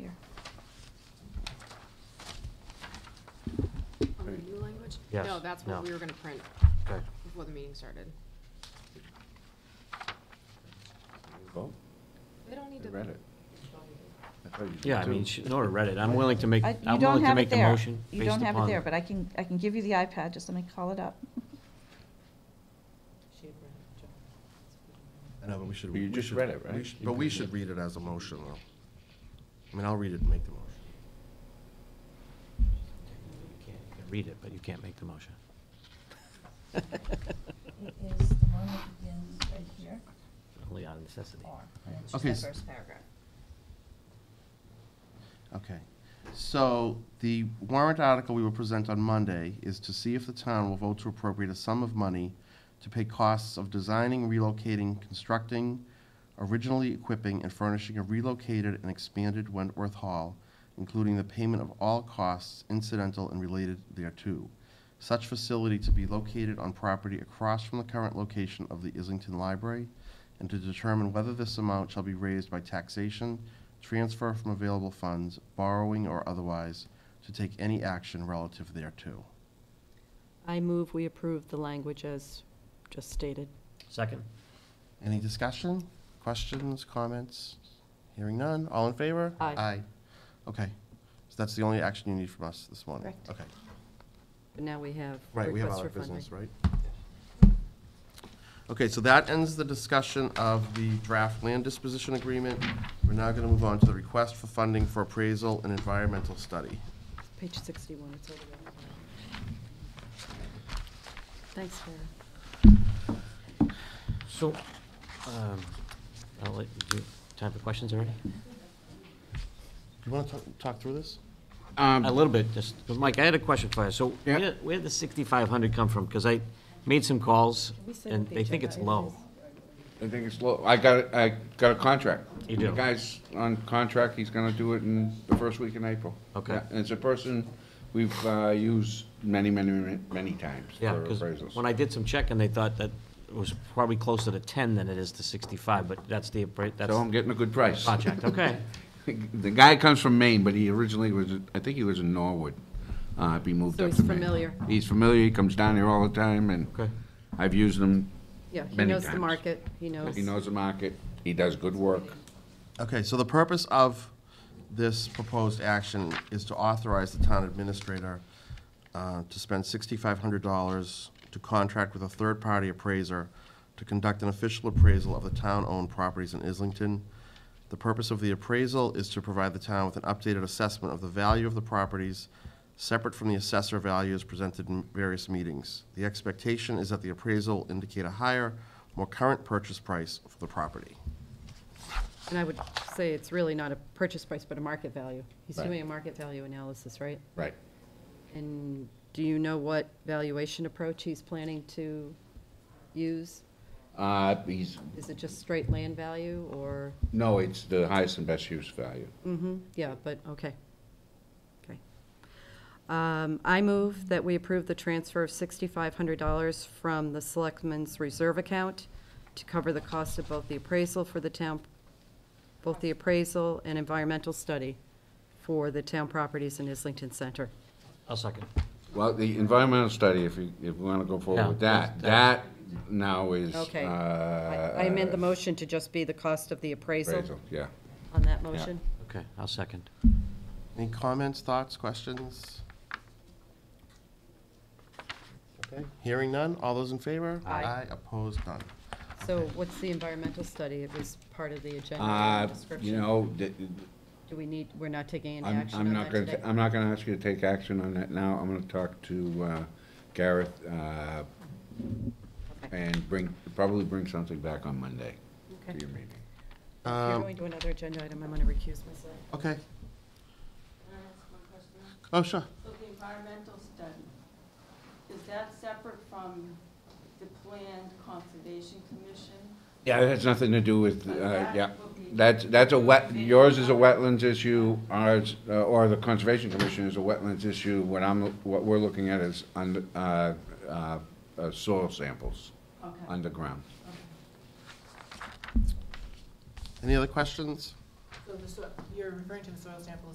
Yes. No, that's No. what we were gonna print Okay. before the meeting started. Vote? They don't need to. You read it. I thought you did Yeah, I mean, too. she- Nora read it. I'm willing to make, I- You I'm don't willing to have make it the there. motion You don't based have it upon. there, but I can, I can give you the iPad, just let me call it up. No, but we should. But you we just should- read it, we right? should- You But we read should it. read it as a motion, though. I mean, I'll read it and make the motion. You can Read it, but you can't make the motion. It is the one that begins right here, Only out of necessity. or, and it's Okay, just the s- first paragraph. Okay. So the warrant article we will present on Monday is to see if the town will vote to appropriate a sum of money to pay costs of designing, relocating, constructing, originally equipping, and furnishing a relocated and expanded Wentworth Hall, including the payment of all costs incidental and related thereto. Such facility to be located on property across from the current location of the Islington Library, and to determine whether this amount shall be raised by taxation, transfer from available funds, borrowing or otherwise, to take any action relative thereto. I move we approve the language as just stated. Second? Any discussion, questions, comments? Hearing none, all in favor? Aye. Aye. Okay, so that's the only action you need from us this morning? Correct. Okay, But now we have right, we have requests other for funding. business, right? Okay, so that ends the discussion of the draft land disposition agreement. We're now gonna move on to the request for funding for appraisal and environmental study. Page 61, it's over there. Thanks, Sarah. So, um, I'll let you, time for questions already? Do you wanna talk, talk through this? A Um, little bit, just, but Mike, I had a question for you. So Yeah. where where did the 6,500 come from? Because I made some calls, we say and what the they think it's agenda low. is? I think it's low. I got, it- I got a contract. You do? The guy's on contract. He's gonna do it in the first week in April. Okay. Yeah, And it's a person we've, uh, used many, many, many, many times for Yeah, because appraisals. when I did some checking, they thought that it was probably closer to 10 than it is to 65, but that's the, appra- that's So I'm the getting a good price. project, okay. The guy comes from Maine, but he originally was, I think he was in Norwood. Uh, he moved So up he's to Maine. familiar. He's familiar. He comes down here all the time and Okay. I've used him. Yeah, he Many knows the times. market, he knows. He knows the market. He does good work. Okay, so the purpose of this proposed action is to authorize the town administrator uh, to spend sixty-five hundred dollars to contract with a third-party appraiser to conduct an official appraisal of the town-owned properties in Islington. The purpose of the appraisal is to provide the town with an updated assessment of the value of the properties, separate from the assessor values presented in various meetings. The expectation is that the appraisal will indicate a higher, more current purchase price for the property. And I would say it's really not a purchase price, but a market value. He's Right. doing a market value analysis, right? Right. And do you know what valuation approach he's planning to use? Uh, he's, Is it just straight land value, or, no, it's the highest and best use value. mm-hmm, yeah, but, okay. Okay. Um, I move that we approve the transfer of sixty-five hundred dollars from the selectmen's reserve account to cover the cost of both the appraisal for the town, both the appraisal and environmental study for the town properties in Islington Center. I'll second. Well, the environmental study, if you, if we want to go forward Yeah, with that, that that's- now is. Okay. uh, I I amend the motion to just be the cost of the appraisal appraisal, Yeah. on that motion. Okay, I'll second. Any comments, thoughts, questions? Okay, hearing none, all those in favor? Aye. opposed, none. So what's the environmental study? It was part of the agenda Uh, and description. you know, th- Do we need, we're not taking any I'm, action I'm on not that gonna, today? ta- I'm not gonna ask you to take action on that now. I'm gonna talk to, uh, Gareth, uh, Okay. and bring, probably bring something back on Monday to Okay. your meeting. If you're Um, going to another agenda item, I'm going to recuse myself. Okay. Oh, sure. So the environmental study, is that separate from the planned conservation commission? Yeah, that has nothing to do with, uh, that yeah, will be- that's, that's a wet, yours is a wetlands issue, ours, uh, or the Conservation Commission is a wetlands issue. What I'm, what we're looking at is under, uh, uh, uh, soil samples Okay. underground. Any other questions? So the, you're referring to the soil sample